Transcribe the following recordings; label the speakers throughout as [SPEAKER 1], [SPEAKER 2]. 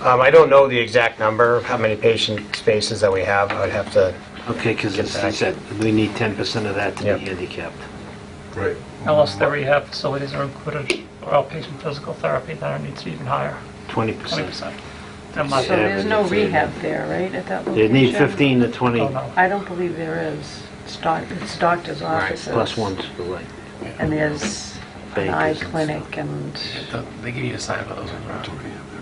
[SPEAKER 1] Um, I don't know the exact number, how many patient spaces that we have. I would have to,
[SPEAKER 2] Okay, because as I
[SPEAKER 1] back.
[SPEAKER 2] said, we need 10% of that to
[SPEAKER 1] Yep.
[SPEAKER 2] be handicapped.
[SPEAKER 3] Right.
[SPEAKER 4] Unless the rehab facilities are included, or outpatient physical therapy, then it needs to be even higher,
[SPEAKER 2] 20%.
[SPEAKER 4] 20%. I'm
[SPEAKER 5] So
[SPEAKER 4] not-
[SPEAKER 2] Yeah,
[SPEAKER 5] there's no
[SPEAKER 2] but it's-
[SPEAKER 5] rehab there, right, at that
[SPEAKER 2] They
[SPEAKER 5] location?
[SPEAKER 2] need 15 to 20
[SPEAKER 4] Oh, no.
[SPEAKER 5] I don't believe there is. It's doc- It's doctor's offices.
[SPEAKER 2] plus ones for like,
[SPEAKER 5] And there's an
[SPEAKER 2] Bankers
[SPEAKER 5] eye
[SPEAKER 2] and stuff.
[SPEAKER 5] clinic and,
[SPEAKER 6] They give you a sign for those ones, right?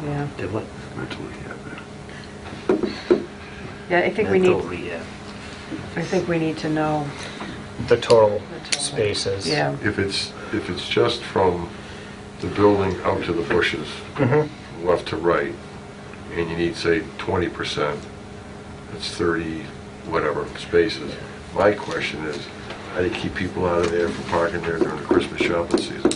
[SPEAKER 5] yeah.
[SPEAKER 2] did what?
[SPEAKER 3] Mentally, yeah, there.
[SPEAKER 5] Yeah, I think we need,
[SPEAKER 2] Mental rehab.
[SPEAKER 5] I think we need to know,
[SPEAKER 1] the total
[SPEAKER 5] total.
[SPEAKER 1] spaces.
[SPEAKER 5] yeah.
[SPEAKER 3] If it's, if it's just from the building out to the bushes, left to right, and you need, say, 20%, that's 30, whatever, spaces. My question is, how do you keep people out of there for parking there during the Christmas shopping season?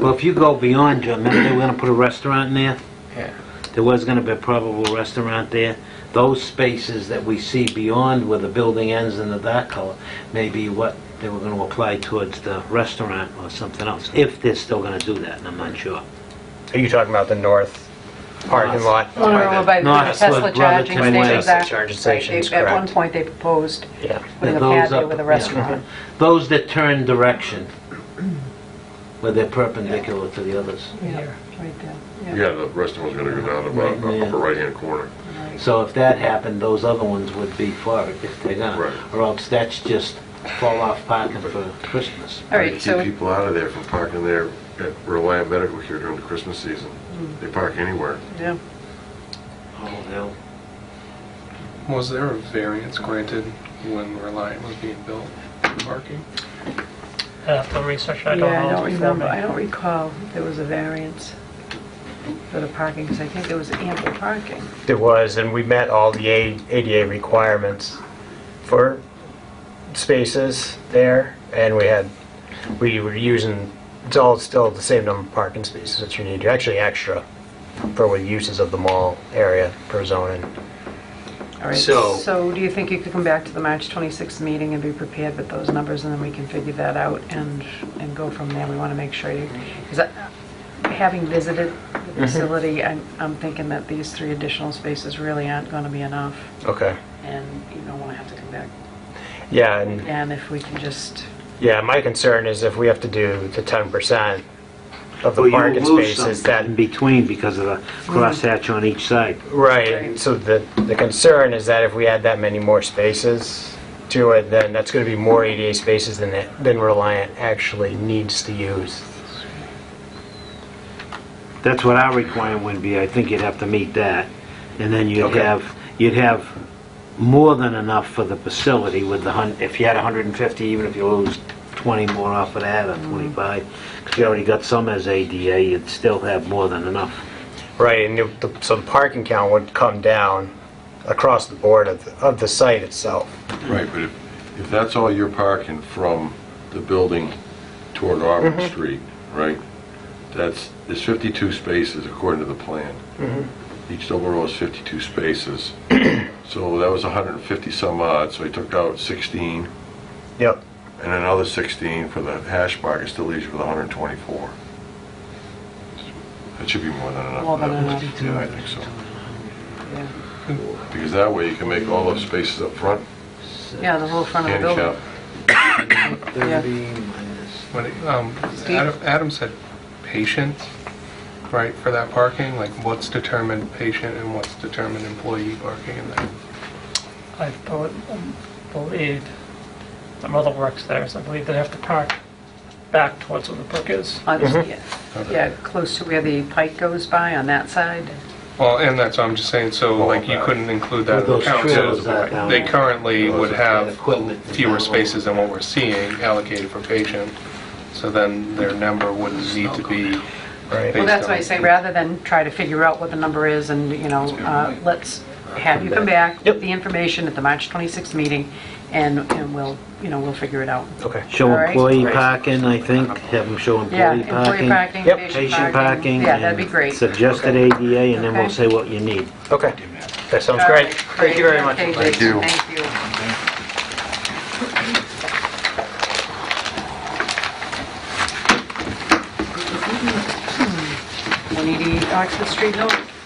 [SPEAKER 2] Well, if you go beyond, John, remember they were going to put a restaurant in there?
[SPEAKER 6] Yeah.
[SPEAKER 2] There was going to be a probable restaurant there. Those spaces that we see beyond where the building ends in the dark color may be what they were going to apply towards the restaurant or something else, if they're still going to do that, and I'm not sure.
[SPEAKER 1] Are you talking about the north parking lot?
[SPEAKER 5] Oh, by
[SPEAKER 2] North Slope, Brotherton Way.
[SPEAKER 5] exact-
[SPEAKER 1] Charging
[SPEAKER 5] right,
[SPEAKER 1] stations,
[SPEAKER 5] they- At one
[SPEAKER 1] correct.
[SPEAKER 5] point, they proposed
[SPEAKER 1] Yeah.
[SPEAKER 5] putting a
[SPEAKER 2] Those
[SPEAKER 5] patio
[SPEAKER 2] up-
[SPEAKER 5] with a
[SPEAKER 2] yeah.
[SPEAKER 5] restaurant.
[SPEAKER 2] Those that turn direction, where they're perpendicular to the others.
[SPEAKER 5] Yeah, right there.
[SPEAKER 3] Yeah, the restaurant's gonna go down about
[SPEAKER 2] Right, yeah.
[SPEAKER 3] upper right-hand corner.
[SPEAKER 2] So if that happened, those other ones would be for it, if they're
[SPEAKER 3] Right.
[SPEAKER 2] gonna. Or else that's just fall-off parking for Christmas.
[SPEAKER 5] All
[SPEAKER 3] How
[SPEAKER 5] right,
[SPEAKER 3] do you
[SPEAKER 5] so,
[SPEAKER 3] keep people out of there from parking there at Reliant Medical here during the Christmas season? They park anywhere.
[SPEAKER 5] yeah,
[SPEAKER 2] Oh, hell.
[SPEAKER 6] Was there a variance granted when Reliant was being built for parking?
[SPEAKER 4] I have to research, I
[SPEAKER 5] Yeah,
[SPEAKER 4] don't know.
[SPEAKER 5] I don't
[SPEAKER 4] It's before me.
[SPEAKER 5] remember, I don't recall there was a variance for the parking, because I think there was ample parking.
[SPEAKER 1] There was, and we met all the A- ADA requirements for spaces there, and we had, we were using, it's all still the same number of parking spaces that you need, actually extra for with uses of the mall area per zoning.
[SPEAKER 5] All right,
[SPEAKER 2] So-
[SPEAKER 5] so do you think you could come back to the March 26th meeting and be prepared with those numbers, and then we can figure that out and, and go from there? We want to make sure you, because having visited the facility, I'm, I'm thinking that these three additional spaces really aren't going to be enough,
[SPEAKER 1] Okay.
[SPEAKER 5] and you don't want to have to come back.
[SPEAKER 1] Yeah, and
[SPEAKER 5] And if we can just,
[SPEAKER 1] Yeah, my concern is if we have to do the ten percent of the
[SPEAKER 2] Well, you
[SPEAKER 1] parking
[SPEAKER 2] will lose
[SPEAKER 1] spaces,
[SPEAKER 2] something
[SPEAKER 1] that,
[SPEAKER 2] In between because of the crosshatch on each side.
[SPEAKER 1] right, so the, the concern is that if we add that many more spaces to it, then that's gonna be more ADA spaces than, it- than Reliant actually needs to use.
[SPEAKER 2] That's what our requirement would be. I think you'd have to meet that. And then you'd
[SPEAKER 1] Okay.
[SPEAKER 2] have, you'd have more than enough for the facility with the hun, if you had 150, even if you lose 20 more off of that or
[SPEAKER 5] Mm-hmm.
[SPEAKER 2] 25, because you already got some as ADA, you'd still have more than enough.
[SPEAKER 1] Right, and the- the- so the parking count would come down across the board of, the- of the site itself.
[SPEAKER 3] Right, but if, if that's all you're parking from the building toward Auburn Street, right? That's, there's 52 spaces according to the plan. Each double row is 52 spaces. So that was 150 some odd, so he took out 16
[SPEAKER 1] Yep,
[SPEAKER 3] and another 16 for the hash mark, it still leaves you with 124. That should be more than enough.
[SPEAKER 5] More than enough.
[SPEAKER 3] Yeah, I think so.
[SPEAKER 5] yeah,
[SPEAKER 3] Because that way you can make all those spaces up front
[SPEAKER 5] yeah, the whole front of the
[SPEAKER 3] handicap.
[SPEAKER 5] building. Yeah.
[SPEAKER 6] When it- um,
[SPEAKER 5] Steve?
[SPEAKER 6] Adam Adam said patient, right, for that parking? Like, what's determined patient and what's determined employee parking in that?
[SPEAKER 4] I bel- believe, my mother works there, so I believe they have to park back towards where the brook is.
[SPEAKER 5] On- yeah,
[SPEAKER 2] Mm-hmm.
[SPEAKER 5] Yeah, close to where the pike goes by on that side.
[SPEAKER 6] Well, and that's what I'm just saying, so
[SPEAKER 3] Well,
[SPEAKER 6] like, you
[SPEAKER 3] that-
[SPEAKER 6] couldn't include that
[SPEAKER 2] With
[SPEAKER 6] in the
[SPEAKER 2] those trailers that
[SPEAKER 6] count.
[SPEAKER 2] down
[SPEAKER 6] They
[SPEAKER 2] there.
[SPEAKER 6] currently
[SPEAKER 3] Those
[SPEAKER 6] would
[SPEAKER 3] are
[SPEAKER 6] have
[SPEAKER 2] equipment that
[SPEAKER 6] fewer
[SPEAKER 2] down there.
[SPEAKER 6] spaces than what we're seeing allocated for patient, so then their number wouldn't need to be
[SPEAKER 1] right.
[SPEAKER 5] Well,
[SPEAKER 6] based
[SPEAKER 5] that's why I
[SPEAKER 6] on-
[SPEAKER 5] say, rather than try to figure out what the number is and, you know, uh, let's have you come back with the information at the March 26th meeting, and, and we'll, you know, we'll figure it out.
[SPEAKER 1] Okay.
[SPEAKER 2] Show
[SPEAKER 5] All right.
[SPEAKER 2] employee parking, I think, have them show
[SPEAKER 5] Yeah,
[SPEAKER 2] employee
[SPEAKER 5] employee
[SPEAKER 2] parking.
[SPEAKER 5] parking,
[SPEAKER 1] Yep.
[SPEAKER 5] patient
[SPEAKER 2] Patient
[SPEAKER 5] parking.
[SPEAKER 2] parking.
[SPEAKER 5] Yeah,
[SPEAKER 2] and
[SPEAKER 5] that'd be great.
[SPEAKER 2] Suggested ADA, and then we'll
[SPEAKER 5] Okay.
[SPEAKER 2] say what you need.
[SPEAKER 1] Okay, that sounds
[SPEAKER 5] All right,
[SPEAKER 1] great. Thank you very much.
[SPEAKER 5] Okay,
[SPEAKER 3] Thank
[SPEAKER 5] Jason,
[SPEAKER 3] you.
[SPEAKER 5] Thank you. One eighty Oxford Street Road.